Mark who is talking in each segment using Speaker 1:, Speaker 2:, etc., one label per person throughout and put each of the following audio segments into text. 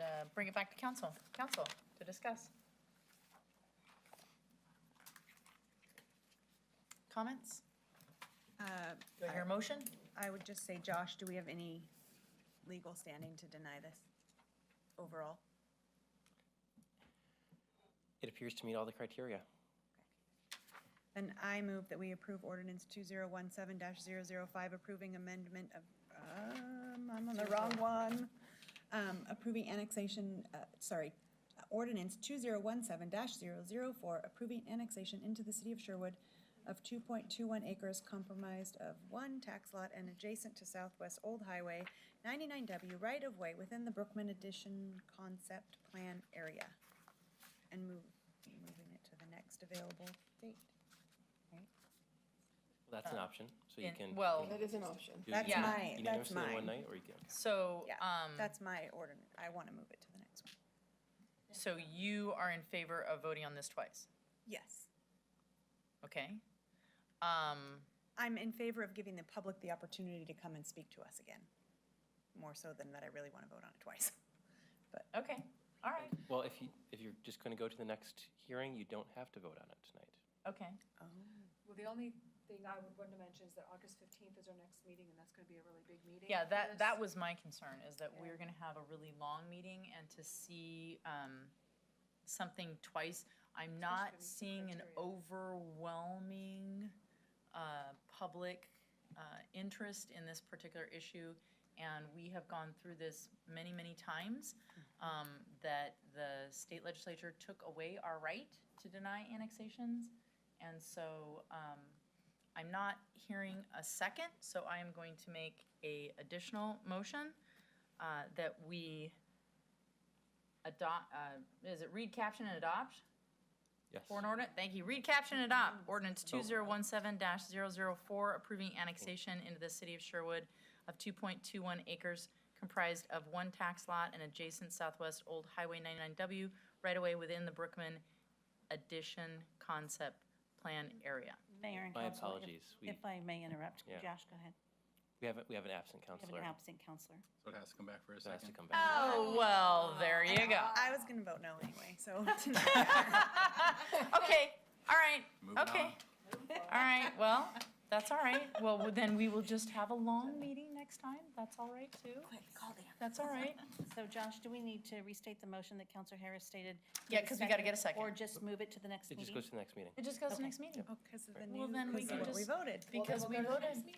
Speaker 1: uh, bring it back to council, council to discuss. Comments?
Speaker 2: Uh,
Speaker 1: Do I hear a motion?
Speaker 2: I would just say, Josh, do we have any legal standing to deny this overall?
Speaker 3: It appears to meet all the criteria.
Speaker 2: Then I move that we approve ordinance two zero one seven 5 approving amendment of, um, I'm on the wrong one. Um, approving annexation, uh, sorry, ordinance two zero one seven 4 approving annexation into the city of Sherwood of two point two one acres comprised of one tax lot and adjacent to Southwest Old Highway ninety-nine W right-of-way within the Brookman Addition concept plan area. And move, moving it to the next available date.
Speaker 3: That's an option, so you
Speaker 1: in-
Speaker 3: can.
Speaker 1: well-
Speaker 3: you
Speaker 4: That is an option.
Speaker 3: do it
Speaker 2: That's
Speaker 3: uni-
Speaker 2: my- that's
Speaker 3: unanimously in
Speaker 2: mine.
Speaker 3: One night, or you can, okay.
Speaker 1: So,
Speaker 2: Yeah,
Speaker 1: um,
Speaker 2: That's my ordinance. I want to move it to the next one.
Speaker 1: so you are in favor of voting on this twice,
Speaker 2: Yes.
Speaker 1: okay? Um,
Speaker 2: I'm in favor of giving the public the opportunity to come and speak to us again, more so than that I really want to vote on it twice.
Speaker 1: okay, all right,
Speaker 3: well, if you, if you're just going to go to the next hearing, you don't have to vote on it tonight.
Speaker 1: okay.
Speaker 5: Well, the only thing I would want to mention is that August fifteenth is our next meeting, and that's gonna be a really big meeting.
Speaker 1: Yeah,
Speaker 5: for
Speaker 1: that, that
Speaker 5: this.
Speaker 1: was my concern, is that
Speaker 5: Yeah.
Speaker 1: we're gonna have a really long meeting and to see, um, something twice. I'm not
Speaker 5: gonna meet the
Speaker 1: seeing an
Speaker 5: criteria.
Speaker 1: overwhelming, uh, public, uh, interest in this particular issue. And we have gone through this many, many times, um, that the state legislature took away our right to deny annexations. And so, um, I'm not hearing a second, so I am going to make a additional motion uh, that we adopt, uh, is it read, caption, and adopt?
Speaker 3: Yes.
Speaker 1: For an ordinance, thank you, read, caption, and adopt, ordinance two zero one seven 4 approving annexation into the city of Sherwood of two point two one acres comprised of one tax lot and adjacent southwest old highway ninety-nine W right away within the Brookman addition concept plan area.
Speaker 6: Mayor and
Speaker 3: My
Speaker 6: council. if-
Speaker 3: apologies. We-
Speaker 6: If I may interrupt,
Speaker 3: Yeah.
Speaker 6: Josh, go ahead.
Speaker 3: We have, a- we have an absent
Speaker 6: You have
Speaker 3: counselor
Speaker 6: an absent counselor.
Speaker 7: So it has to come back for a
Speaker 3: who has to
Speaker 7: second.
Speaker 3: come back.
Speaker 1: Oh, well, there you go.
Speaker 2: I was going to vote no anyway, so.
Speaker 1: Okay, all right,
Speaker 7: Moving
Speaker 1: okay. All right, well, that's all right. Well, then we will just have a long meeting next time. That's all right, too. That's all right.
Speaker 6: So Josh, do we need to restate the motion that Counselor Harris stated?
Speaker 1: Yeah, 'cause we gotta get a second.
Speaker 6: Or just move it to the next
Speaker 3: It just
Speaker 6: meeting?
Speaker 3: goes to the next meeting.
Speaker 1: It just goes to
Speaker 6: Okay.
Speaker 1: next meeting.
Speaker 2: Because of the
Speaker 1: Well,
Speaker 2: new,
Speaker 1: then we
Speaker 2: because
Speaker 1: can
Speaker 2: of what we
Speaker 1: just-
Speaker 2: voted.
Speaker 1: Because we voted.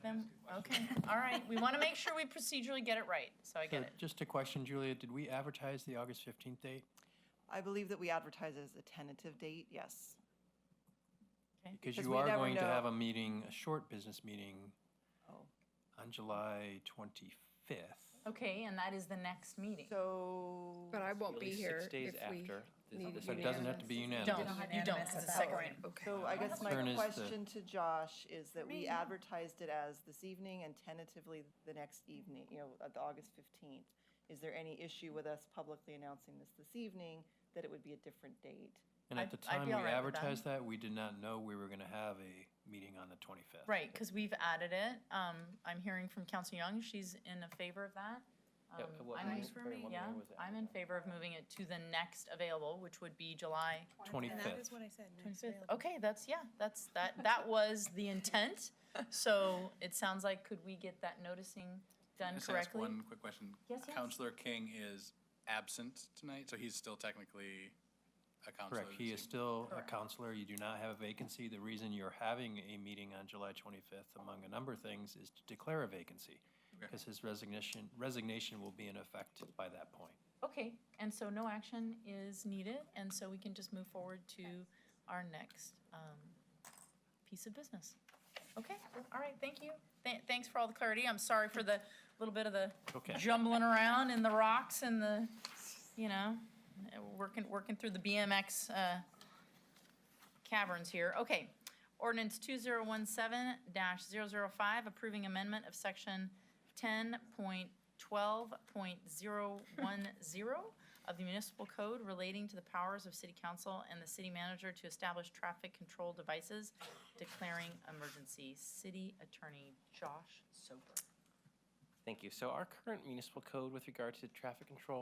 Speaker 1: Then, okay, all right. We want to make sure we procedurally get it right, so I
Speaker 8: So
Speaker 1: get it.
Speaker 8: Just a question, Julia, did we advertise the August 15th date?
Speaker 9: I believe that we advertise it as a tentative date, yes.
Speaker 8: Because
Speaker 9: Because
Speaker 8: you
Speaker 9: we
Speaker 8: are
Speaker 9: never
Speaker 8: going to
Speaker 9: know.
Speaker 8: have a meeting, a short business meeting
Speaker 9: Oh.
Speaker 8: on July 25th.
Speaker 1: Okay, and that is the next meeting.
Speaker 9: So,
Speaker 4: But I won't
Speaker 3: Really
Speaker 4: be here
Speaker 3: Six
Speaker 4: if
Speaker 3: days
Speaker 4: we
Speaker 3: after. this-
Speaker 4: need
Speaker 3: this
Speaker 8: So it doesn't have to be
Speaker 1: Don't,
Speaker 8: unanimous.
Speaker 1: you don't, 'cause it's second reading.
Speaker 4: Okay.
Speaker 9: so I guess my
Speaker 8: Concern is the-
Speaker 9: question to Josh is that we advertised it as this evening and tentatively the next evening, you know, at the August 15th. Is there any issue with us publicly announcing this this evening, that it would be a different date?
Speaker 8: And
Speaker 1: I'd-
Speaker 8: at the
Speaker 1: I'd be
Speaker 8: time we
Speaker 1: all right with that.
Speaker 8: advertised that, we did not know we were going to have a meeting on the 25th.
Speaker 1: Right, because we've added it. Um, I'm hearing from Council Young, she's in a favor of that.
Speaker 3: Yeah,
Speaker 1: Um,
Speaker 3: what
Speaker 1: I'm in-
Speaker 3: meeting- pardon, what
Speaker 1: Yeah,
Speaker 3: meeting was it?
Speaker 1: I'm in favor of moving it to the next available, which would be July
Speaker 2: And that is
Speaker 8: 25th.
Speaker 2: what I said. next
Speaker 1: twenty-fifth.
Speaker 2: available.
Speaker 1: Okay, that's, yeah, that's, that, that was the intent. So it sounds like, could we get that noticing done
Speaker 7: Just ask
Speaker 1: correctly?
Speaker 7: one quick question.
Speaker 1: Yes, yes.
Speaker 7: Counselor King is absent tonight, so he's still technically a counselor.
Speaker 8: Correct, he
Speaker 7: this
Speaker 8: is
Speaker 7: evening.
Speaker 8: still a
Speaker 1: Correct.
Speaker 8: counselor, you do not have a vacancy. The reason you're having a meeting on July 25th, among a number of things, is to declare a vacancy, because his resignation, resignation will be in effect by that point.
Speaker 1: Okay, and so no action is needed, and so we can just move forward to our next, um, piece of business. Okay, all right, thank you. Th- thanks for all the clarity. I'm sorry for the little bit of the
Speaker 8: Okay.
Speaker 1: jumbling around in the rocks and the, you know, uh, working, working through the BMX, uh, caverns here. Okay. Ordinance two zero one seven 5 approving amendment of section ten point twelve point zero one zero of the municipal code relating to the powers of city council and the city manager to establish traffic control devices, declaring emergency. City Attorney Josh Soper.
Speaker 3: Thank you. So our current municipal code with regard to traffic control